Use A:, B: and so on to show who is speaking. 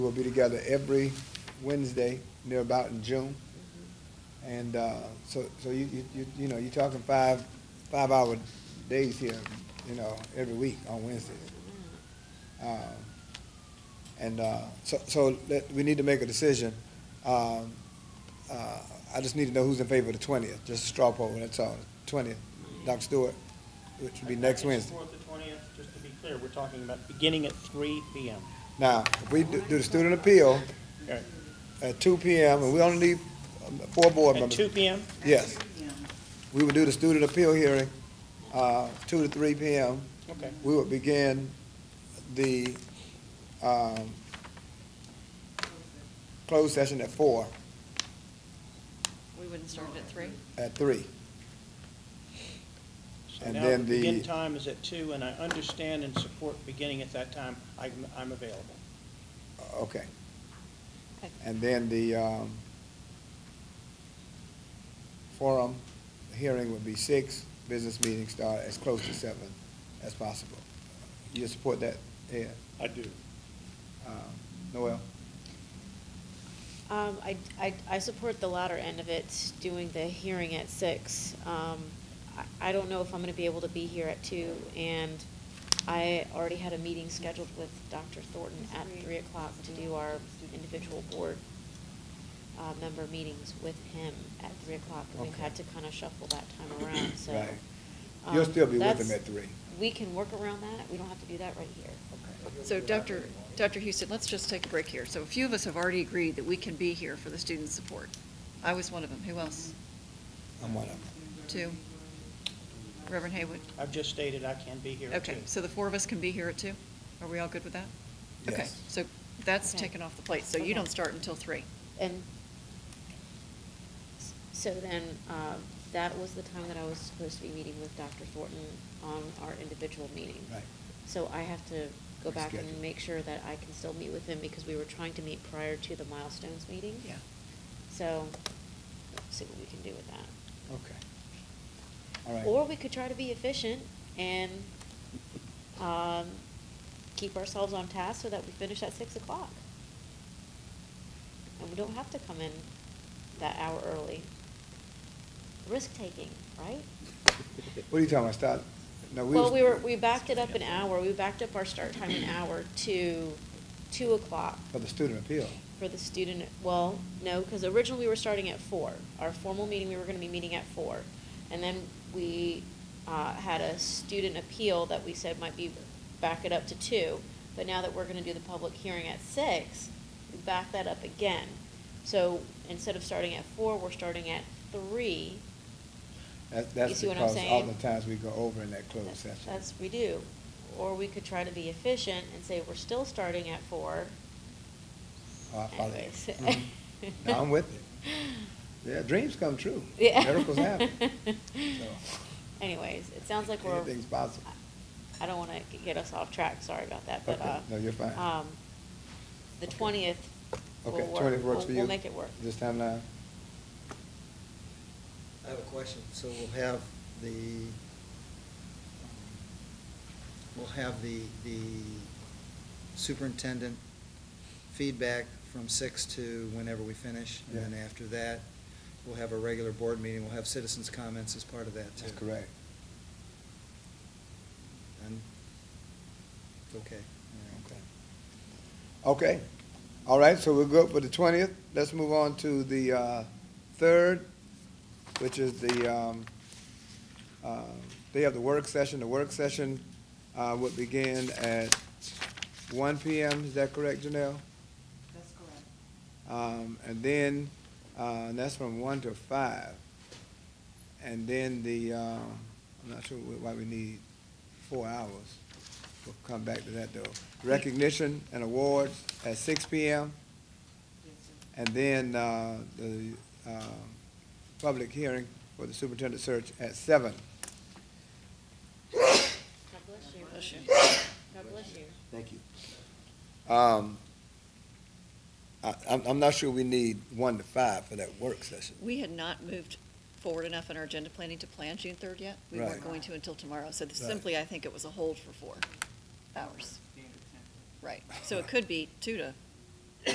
A: We'll be together every Wednesday, near about in June. And uh, so, so you, you, you- you know, you're talking five, five-hour days here, you know, every week on Wednesdays. Um, And uh, so, so let- we need to make a decision. Um, uh, I just need to know who's in favor of the twentieth, just a straw poll, that's all, twentieth. Dr. Stewart, which would be next Wednsday.
B: Fourth to twentieth, just to be clear, we're talking about beginning at three P M.
A: Now, if we do do the student appeal
B: Okay.
A: at two PM, and we only need um, four board
B: At
A: members.
B: two P M,
A: Yes. We would do the student appeal hearing, uh, two to three PM.
B: okay.
A: We would begin the, um, closed session at four,
C: We wouldn't start at three?
A: at three.
B: So
A: And
B: now the
A: then
B: begin
A: the,
B: time is at two, and I understand and support beginning at that time. I'm, I'm available.
A: okay. And then the, um, forum hearing would be six, business meeting start as close to seven as possible. You support that, Ed?
B: I do.
A: Um, Noel?
D: Um, I, I, I support the latter end of it, doing the hearing at six. Um, I, I don't know if I'm gonna be able to be here at two, and I already had a meeting scheduled with Dr. Thornton at three o'clock to do our individual board, uh, member meetings with him at three o'clock, and we've
A: Okay.
D: had to kinda shuffle that time around, so.
A: Right. You'll
D: um,
A: still be with him
D: that's-
A: at three.
D: We can work around that, we don't have to do that right here.
C: So Dr., Dr. Houston, let's just take a break here. So a few of us have already agreed that we can be here for the student support. I was one of them. Who else?
A: I'm one of them.
C: Two? Reverend Haywood?
B: I've just stated I can be here at two.
C: Okay, so the four of us can be here at two? Are we all good with that? Okay,
A: Yes.
C: so that's
D: Okay.
C: taken off the plate, so you
D: Okay.
C: don't start until three.
D: And s- so then, uh, that was the time that I was supposed to be meeting with Dr. Thornton on our individual meeting.
A: Right.
D: So I have to go back
A: Reschedule.
D: and make sure that I can still meet with him because we were trying to meet prior to the milestones meeting.
C: Yeah.
D: So, let's see what we can do with that.
A: Okay. All right.
D: Or we could try to be efficient and, um, keep ourselves on task so that we finish at six o'clock. And we don't have to come in that hour early. Risk-taking, right?
A: What are you talking about, start? no,
D: Well,
A: was-
D: we were, we backed it up an hour, we backed up our start time an hour to two o'clock
A: For the student appeal.
D: for the student, well, no, because originally we were starting at four. Our formal meeting, we were gonna be meeting at four. And then we, uh, had a student appeal that we said might be, back it up to two. But now that we're gonna do the public hearing at six, we back that up again. So instead of starting at four, we're starting at three.
A: That, that's
D: see what I'm
A: because all
D: saying?
A: the times we go over in that closed session.
D: That's, we do. Or we could try to be efficient and say, we're still starting at four.
A: Oh, I follow you.
D: Anyways.
A: Mhm. No, I'm with it. Yeah, dreams come true.
D: Yeah.
A: Miracles happen. So,
D: Anyways, it sounds like we're.
A: Anything's possible.
D: I don't wanna g- get us off track, sorry about that, but,
A: Okay,
D: uh.
A: no, you're fine.
D: Um, the
A: Okay.
D: twentieth will
A: Okay,
D: work.
A: twenty works
D: We'll-
A: for you?
D: We'll make it work.
A: This time now?
E: I have a question. So we'll have the, we'll have the, the superintendent feedback from six to whenever we finish. And then
A: Yeah.
E: after that, we'll have a regular board meeting. We'll have citizens' comments as part of that too.
A: That's correct.
E: And, okay. all right.
A: Okay. Okay, all right, so we're good for the twentieth. Let's move on to the, uh, third, which is the, um, uh, they have the work session. The work session, uh, would begin at one PM, is that correct, Janelle?
F: That's correct.
A: Um, and then, uh, and that's from one to five. And then the, uh, I'm not sure wh- why we need four hours. We'll come back to that though. Recognition and awards at six P M.
F: Yes, sir.
A: And then, uh, the, um, public hearing for the superintendent search at seven.
D: God bless you.
C: Bless you.
D: God bless you.
A: Thank you. Um, I, I'm, I'm not sure we need one to five for that work session.
C: We had not moved forward enough in our agenda planning to plan June third yet. We
A: Right.
C: weren't going to until tomorrow, so this-
A: Right.
C: simply, I think it was a hold for four hours. Right, so it could be two to